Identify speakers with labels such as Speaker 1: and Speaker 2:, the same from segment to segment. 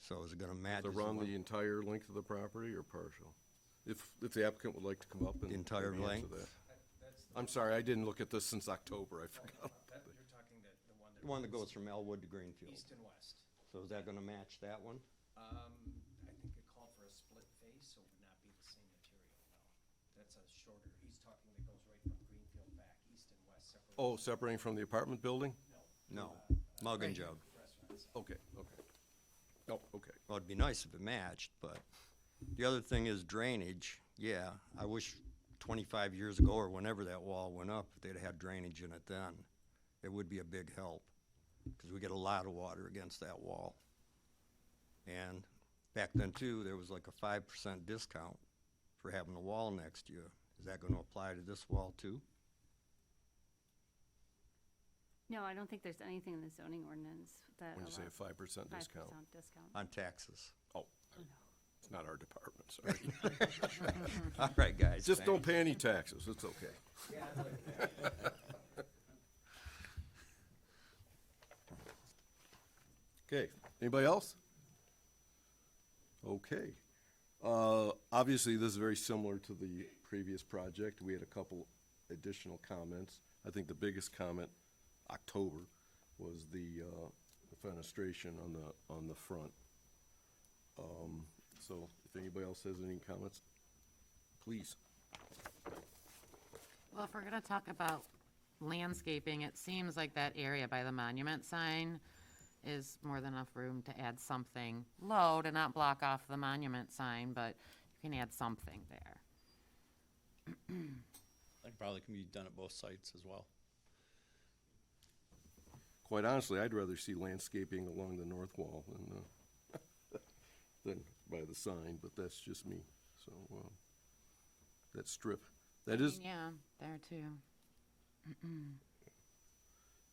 Speaker 1: So is it gonna match?
Speaker 2: Is it around the entire length of the property or partial? If, if the applicant would like to come up and.
Speaker 1: The entire
Speaker 2: maybe answer
Speaker 1: length?
Speaker 2: that. I'm sorry, I didn't look at this since October, I forgot.
Speaker 3: That, you're talking the, the one that.
Speaker 1: The one that
Speaker 3: runs
Speaker 1: goes from Elwood to Greenfield.
Speaker 3: East and west.
Speaker 1: So is that gonna match that one?
Speaker 3: Um, I think it called for a split phase, so it would not be the same material, no. That's a shorter, he's talking that goes right from Greenfield back, east and west separate.
Speaker 2: Oh, separating from the apartment building?
Speaker 1: No, mug and jug.
Speaker 3: Restaurants.
Speaker 2: Okay, okay. Oh, okay.
Speaker 1: Well, it'd be nice if it matched, but the other thing is drainage. Yeah, I wish twenty-five years ago or whenever that wall went up, if they'd had drainage in it then. It would be a big help, cause we get a lot of water against that wall. And back then too, there was like a five percent discount for having a wall next to you. Is that gonna apply to this wall too?
Speaker 4: No, I don't think there's anything in the zoning ordinance that
Speaker 2: When you
Speaker 4: allows
Speaker 2: say a five percent
Speaker 4: five
Speaker 2: discount.
Speaker 4: percent discount.
Speaker 1: On taxes.
Speaker 2: Oh, it's not our department, sorry.
Speaker 1: All right, guys.
Speaker 2: Just don't
Speaker 1: thanks.
Speaker 2: pay any taxes, it's okay. Okay, anybody else? Okay. Uh, Obviously, this is very similar to the previous project. We had a couple additional comments. I think the biggest comment, October, was the uh, the fenestration on the, on the front. Um, So if anybody else has any comments, please.
Speaker 5: Well, if we're gonna talk about landscaping, it seems like that area by the monument sign is more than enough room to add something low to not block off the monument sign, but you can add something there.
Speaker 6: That probably can be done at both sites as well.
Speaker 2: quite honestly, I'd rather see landscaping along the north wall than, uh, than by the sign, but that's just me, so, um, that strip, that is,
Speaker 5: Yeah, there too.
Speaker 2: I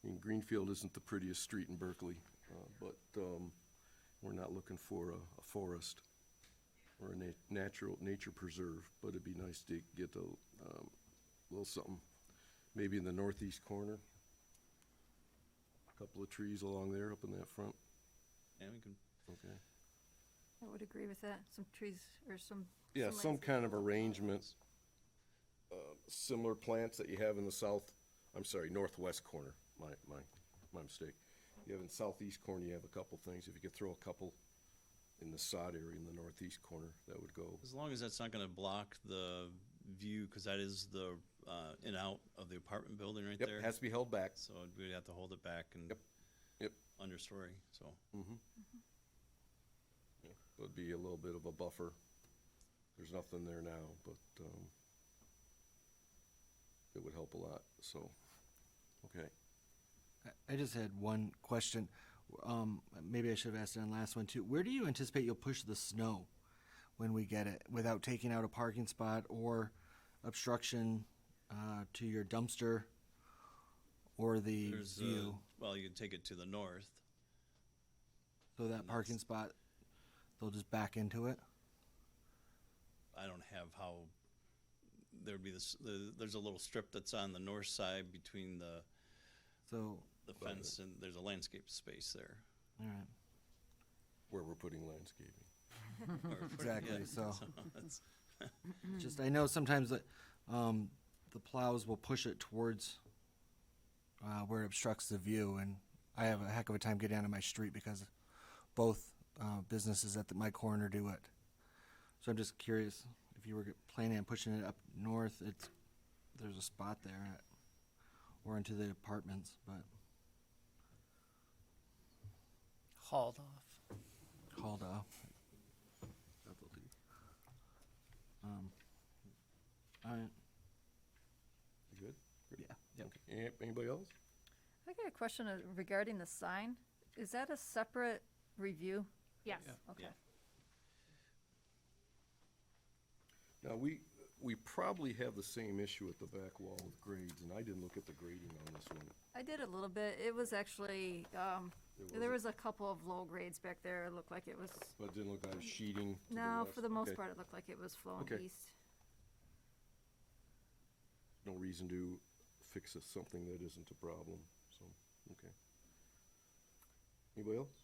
Speaker 2: mean, Greenfield isn't the prettiest street in Berkeley, uh, but, um, we're not looking for a, a forest or a na- natural, nature preserve, but it'd be nice to get a, um, little something, maybe in the northeast corner. Couple of trees along there, up in that front,
Speaker 6: And we can,
Speaker 2: okay.
Speaker 7: I would agree with that, some trees or some.
Speaker 2: Yeah, some
Speaker 7: landscape.
Speaker 2: kind of arrangements, uh, similar plants that you have in the south, I'm sorry, northwest corner, my, my, my mistake. You have in southeast corner, you have a couple things, if you could throw a couple in the sod area in the northeast corner, that would go.
Speaker 6: as long as that's not gonna block the view, cause that is the, uh, in out of the apartment building right
Speaker 2: Yep,
Speaker 6: there.
Speaker 2: has to be held back,
Speaker 6: So we'd have to hold it back and
Speaker 2: Yep, yep.
Speaker 6: understory, so.
Speaker 2: would be a little bit of a buffer. There's nothing there now, but, um, it would help a lot, so, okay.
Speaker 8: I- I just had one question. Um, maybe I should have asked it on last one too. Where do you anticipate you'll push the snow when we get it without taking out a parking spot or obstruction uh, to your dumpster or the
Speaker 6: There's a,
Speaker 8: view?
Speaker 6: well, you can take it to the north.
Speaker 8: so that parking spot, they'll just back into it.
Speaker 6: I don't have how, there'd be this, the- there's a little strip that's on the north side between the,
Speaker 8: So,
Speaker 6: the fence and there's a landscape space there.
Speaker 8: all right,
Speaker 2: Where we're putting landscaping.
Speaker 6: Or-
Speaker 8: exactly.
Speaker 6: yeah,
Speaker 8: So.
Speaker 6: that's-
Speaker 8: Just, I know sometimes that, um, the plows will push it towards, uh, where it obstructs the view, and I have a heck of a time getting out of my street because both, uh, businesses at the, my corner do it. So I'm just curious, if you were g- planning on pushing it up north, it's, there's a spot there, or into the apartments, but
Speaker 5: Hauled off.
Speaker 8: hauled off. Um, alright,
Speaker 2: You good?
Speaker 8: yeah, yeah.
Speaker 2: Okay. An- Anybody else?
Speaker 7: I got a question uh, regarding the sign. Is that a separate review?
Speaker 4: Yes,
Speaker 7: Okay.
Speaker 6: Yeah.
Speaker 2: Now, we, we probably have the same issue at the back wall with grades, and I didn't look at the grading on this one.
Speaker 7: I did a little bit. It was actually, um, there was a couple of low grades back there. It looked like it was,
Speaker 2: But it didn't look like sheeting. to
Speaker 7: no,
Speaker 2: west.
Speaker 7: for the most
Speaker 2: Okay.
Speaker 7: part, it looked like it was flowing
Speaker 2: Okay.
Speaker 7: east.
Speaker 2: No reason to fix a- something that isn't a problem, so, okay. Anybody else?